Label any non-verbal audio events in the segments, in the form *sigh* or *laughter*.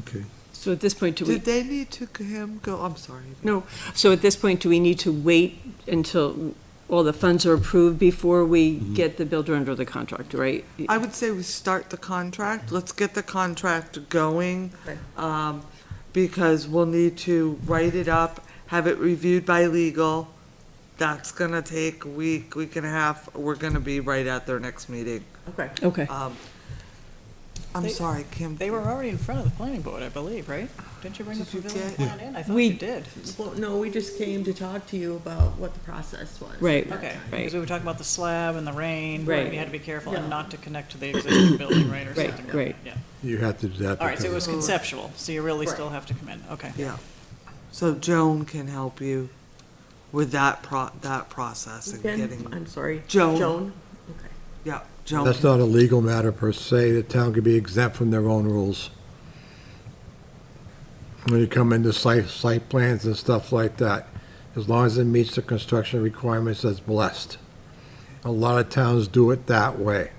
Okay. So at this point, do we, Did they need to g- him go, I'm sorry. no, so at this point, do we need to wait until all the funds are approved before we get the builder under the contract, right? I would say we start the contract, let's get the contract going, um, because we'll need to write it up, have it reviewed by legal. That's gonna take a week, week and a half, we're gonna be right at their next meeting. Okay. Okay. Um, I'm They- sorry, Kim. They were already in front of the planning board, I believe, right? Didn't you bring the Did you pavilion get- plan in? I thought We- you did. Well, no, we just came to talk to you about what the process was. Right. Okay, Right. because we were talking about the slab and the rain, Right. and you had to be careful and Yeah. not to connect to the existing building, right, or Right, something? right. Yeah. You have to do that. All right, so it was because- conceptual, so you really Right. still have to come in, okay. Yeah. So Joan can help you with that pro, that process and Again, getting, I'm sorry. Joan. Joan, okay. yeah, Joan. That's not a legal matter per se. The town could be exempt from their own rules. When you come into site, site plans and stuff like that, as long as it meets the construction requirements, that's blessed. A lot of towns do it that way.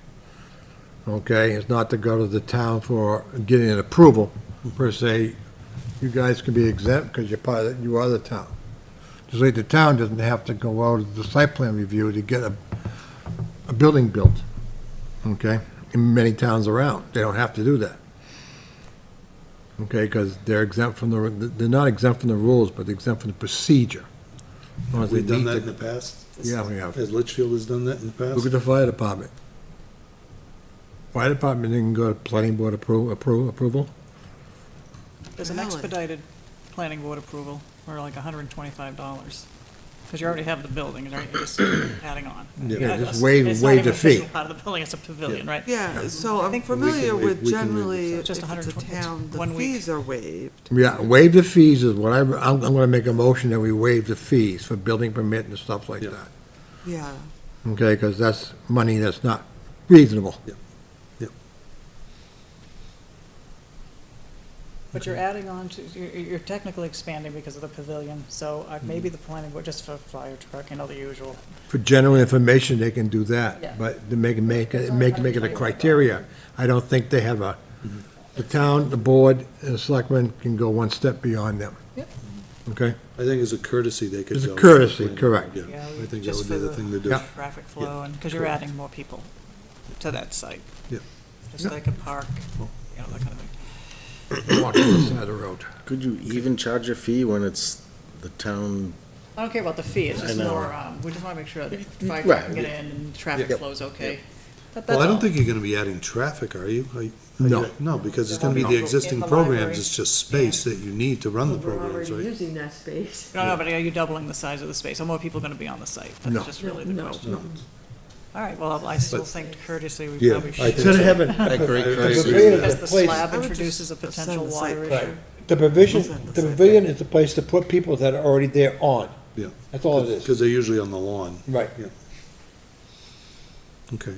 Okay, it's not to go to the town for getting an approval per se. You guys can be exempt because you're part of, you are the town. Just like the town doesn't have to go out to the site plan review to get a, a building built. Okay, in many towns around, they don't have to do that. Okay, because they're exempt from the, they're not exempt from the rules, but they're exempt from the procedure. As long as they We've done meet that in the- the past. Yeah, we have. As Litchfield has done that in the Look at past. the fire department. Fire department didn't go to planning board appro, appro, approval? There's an Really? expedited planning board approval, or like hundred and twenty-five dollars, because you already have the building, and you're just adding on. Yeah. Yeah, It's- just waive- it's not waive even the fee. official Part of the building, it's a pavilion, right? Yeah, so I I'm think- familiar We can with waive- we can waive the generally, fee. if Just it's a 120 town, the one week. fees are waived. Yeah, waive the fees is what I, I'm, I'm gonna make a motion that we waive the fees for building permit and stuff like Yeah. that. Yeah, Okay, because that's money that's not reasonable. But you're adding on to, you're, you're technically expanding because of the pavilion, so Mm-hmm. uh, maybe the planning board, just for fire truck, you know, the usual. For general information, they can do Yeah. that, but to make, make, it- make, make it a criteria. I don't think they have a, the town, the board, and the selectmen can go one step beyond them. Yep. Okay? I think as a courtesy, they could As go. a with the courtesy, planning correct. board, Yeah, Yeah, I think that just would be for the the- thing to do. Yeah. Traffic flow, and, because you're correct. adding more people to that site. Yeah. Just like a park, you know, that kind of thing. Walk to the side of the road. Could you even charge a fee when it's the town? I don't care about the fee, it's I just know. Mm-hmm. lower, um, we just want to make sure that fire Right, truck can get yeah. in and traffic Yep. flow's okay. That- Well, that's I don't all. think you're gonna be adding traffic, are you? Are you- are you- No. No, because it's gonna be No. the existing In the library. programs, it's just space that you need to run the We're programs, already Oh, right? using that space. No, no, but are you doubling the size of the space? Are more people going to be on the site? No. That's just really the No. question. All right, well, I still think courtesy, we Yeah, probably I should. think- heaven. That great I- I courtesy. agree with Because the slab I would just introduces a send potential the site water plan. issue. The provision, Isn't the the same. pavilion is the place to put people that are already there on. Yeah. That's all it is. Because they're usually on the lawn. Right. Yeah. Okay.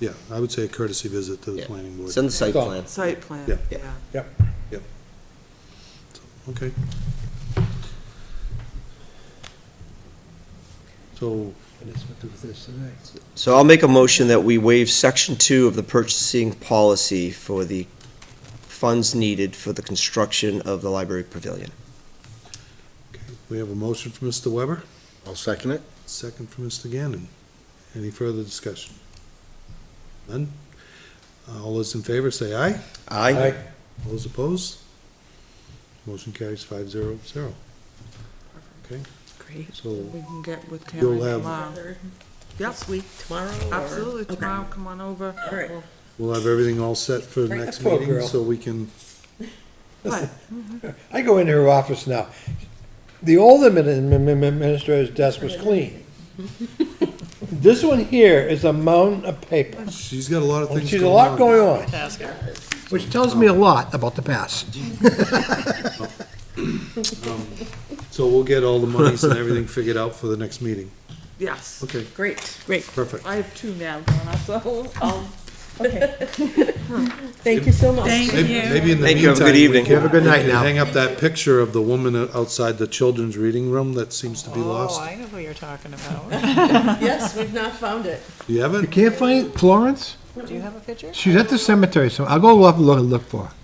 Yeah, I would say a courtesy visit to the Yeah. planning board. Send the site Go. plan. site plan, Yeah. yeah. Yep. Okay. So, So I'll make a motion that we waive section two of the purchasing policy for the funds needed for the construction of the library pavilion. okay, we have a motion from Mr. Weber, I'll second it. second from Mr. Gannon. Any further discussion? None? Uh, All those in favor say aye. Aye. All those opposed? Motion carries five zero zero. Okay, Great. so We can get with Karen You'll have- tomorrow. This week, tomorrow? or- Absolutely, Okay. tomorrow, come on over. All right. We'll- we'll have everything all set for the next Poor meeting, girl. so we can, What? I go into her office now. The old admin- admin- administrator's desk was *laughs* clean. This one here is a mountain of paper. she's got a lot of things She's a lot going on, Task her. which tells me a lot about the past. So we'll get all the monies and everything figured out for the next meeting. Yes, Okay, Great. perfect. I have two now, Donna, so, um, *laughs* Thank you so much. Maybe maybe in the Thank you, have a meantime, good we evening. can- Have a good we night can now. Hang up that picture of the woman o- outside the children's reading room that seems to be Oh, lost. I know who you're talking about. Yes, we've not found it. You You haven't? can't find Florence? Do you have a picture? She's at the cemetery, so I'll go up and look, look for her.